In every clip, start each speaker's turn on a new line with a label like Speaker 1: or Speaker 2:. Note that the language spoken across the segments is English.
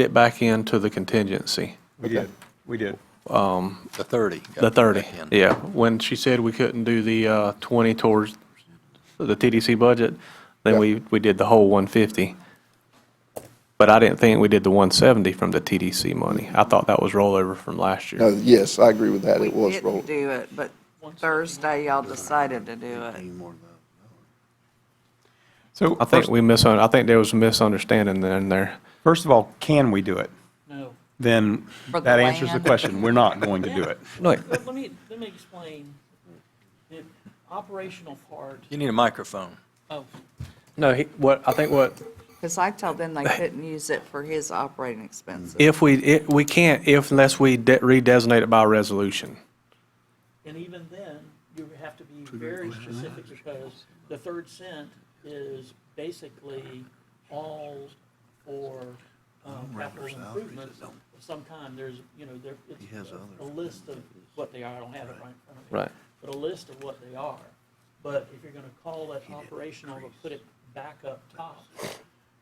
Speaker 1: it back into the contingency,
Speaker 2: We did, we did.
Speaker 3: The 30.
Speaker 1: the 30.
Speaker 3: Back in.
Speaker 1: Yeah, when she said we couldn't do the uh, 20 towards the TDC budget, then we, we did the whole 150. But I didn't think we did the 170 from the TDC money. I thought that was rollover from last
Speaker 4: No,
Speaker 1: year.
Speaker 4: yes, I agree with that.
Speaker 5: We
Speaker 4: It was
Speaker 5: didn't
Speaker 4: rolled.
Speaker 5: do it, but Thursday y'all decided to do it.
Speaker 2: So
Speaker 1: I think
Speaker 2: first,
Speaker 1: we misun, I think there was a misunderstanding in there.
Speaker 2: first of all, can we do it?
Speaker 6: No.
Speaker 2: Then
Speaker 5: For the
Speaker 2: that answers the
Speaker 5: land.
Speaker 2: question. We're not going to do it.
Speaker 1: Like,
Speaker 6: Let let me, let me explain. The operational part
Speaker 3: You need a microphone.
Speaker 6: of,
Speaker 1: no, he- what, I think what
Speaker 5: Because I told them they couldn't use it for his operating expenses.
Speaker 1: If we, it, we can't, if unless we de- redesignate it by resolution.
Speaker 6: and even then, you have to be very specific because the third cent is basically all for um, capital improvements of some kind. There's, you know, there, it's a list of what they are. I don't have it right in front of me. But a list of what they are. But if you're gonna call that operational or put it back up top,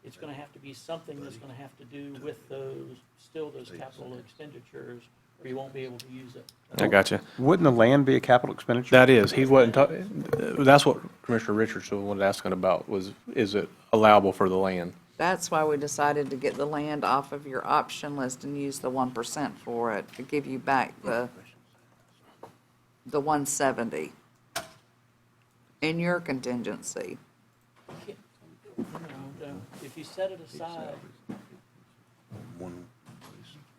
Speaker 6: it's gonna have to be something that's gonna have to do with those, still those capital expenditures, or you won't be able to use it.
Speaker 1: I got you.
Speaker 2: Wouldn't the land be a capital expenditure?
Speaker 1: That is, he wasn't talking, that's what Commissioner Richards was asking about, was, is it allowable for the land?
Speaker 4: Mm-hmm.
Speaker 5: That's why we decided to get the land off of your option list and use the one percent for it, to give you back the, the one seventy in your contingency.
Speaker 6: You know, um, If you set it aside,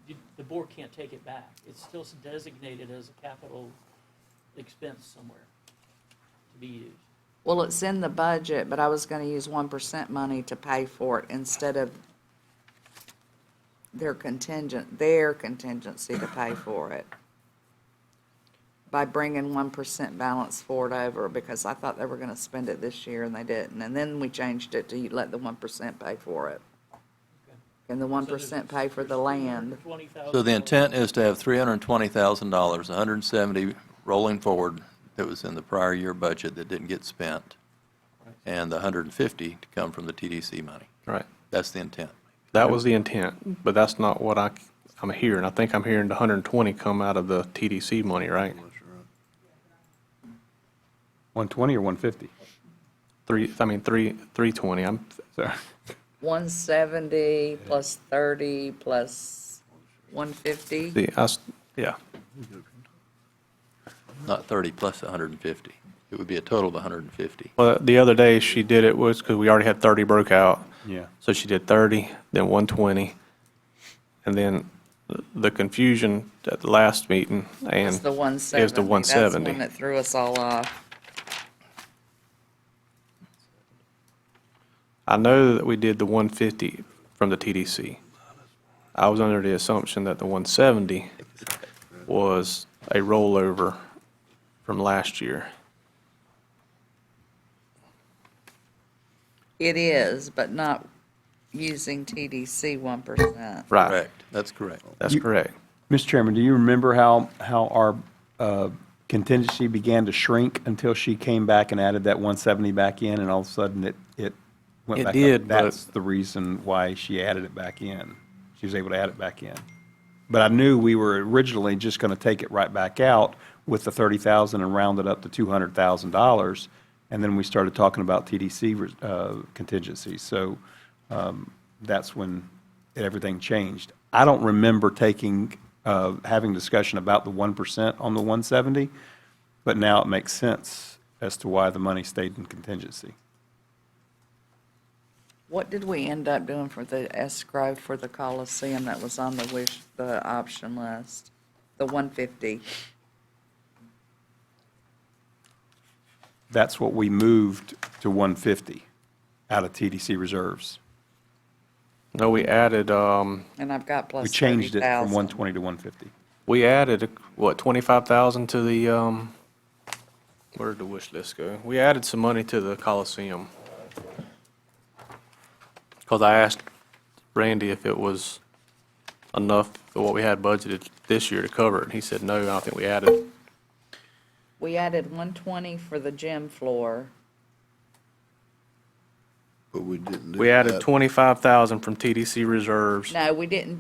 Speaker 6: you- the board can't take it back. It's still designated as a capital expense somewhere to be used.
Speaker 5: Well, it's in the budget, but I was gonna use one percent money to pay for it instead of their contingent, their contingency to pay for it. By bringing one percent balance forward over, because I thought they were gonna spend it this year and they didn't, and then we changed it to let the one percent pay for it. And the one percent pay for the land.
Speaker 6: $20,000
Speaker 3: So the intent is to have $320,000, 170 rolling forward that was in the prior year budget that didn't get spent, and the 150 to come from the TDC money.
Speaker 1: Right.
Speaker 3: That's the intent.
Speaker 1: That was the intent, but that's not what I, I'm hearing. I think I'm hearing the hundred and twenty come out of the TDC money, right?
Speaker 2: 120 or 150?
Speaker 1: Three, I mean, three, three twenty, I'm,
Speaker 2: So,
Speaker 5: One seventy plus thirty plus one fifty.
Speaker 1: the, I, s- yeah,
Speaker 3: Not 30 plus 150. It would be a total of 150.
Speaker 1: well, the other day she did it was, because we already had thirty broke out.
Speaker 2: yeah.
Speaker 1: So she did 30, then 120, and then the confusion at the last meeting, and
Speaker 5: It's the one seventy.
Speaker 1: is the 170.
Speaker 5: That's one that threw us all off.
Speaker 1: I know that we did the 150 from the TDC. I was under the assumption that the 170 was a rollover from last year.
Speaker 5: It is, but not using TDC one percent.
Speaker 1: Right,
Speaker 3: Correct. That's correct.
Speaker 1: that's correct.
Speaker 2: Mr. Chairman, do you remember how, how our uh, contingency began to shrink until she came back and added that 170 back in, and all of a sudden it, it went
Speaker 1: It
Speaker 2: back up?
Speaker 1: did, but-
Speaker 2: That's the reason why she added it back in. She was able to add it back in. But I knew we were originally just going to take it right back out with the 30,000 and round it up to $200,000, and then we started talking about TDC uh, contingencies. So that's when it- everything changed. I don't remember taking, uh, having discussion about the 1% on the 170, but now it makes sense as to why the money stayed in contingency.
Speaker 5: What did we end up doing for the escrow for the Coliseum that was on the wish, the option list? The one fifty.
Speaker 2: That's what we moved to 150 out of TDC reserves.
Speaker 1: No, we added, um,
Speaker 5: And I've got
Speaker 2: We
Speaker 5: plus thirty
Speaker 2: changed it from
Speaker 5: thousand.
Speaker 2: 120 to 150.
Speaker 1: we added, what, 25,000 to the, um, where did the wish list go? We added some money to the Coliseum. Because I asked Randy if it was enough for what we had budgeted this year to cover it. and He said, no, I don't think we added.
Speaker 5: We added one twenty for the gym floor.
Speaker 4: but we didn't do
Speaker 1: We added
Speaker 4: that.
Speaker 1: 25,000 from TDC reserves.
Speaker 5: No, we didn't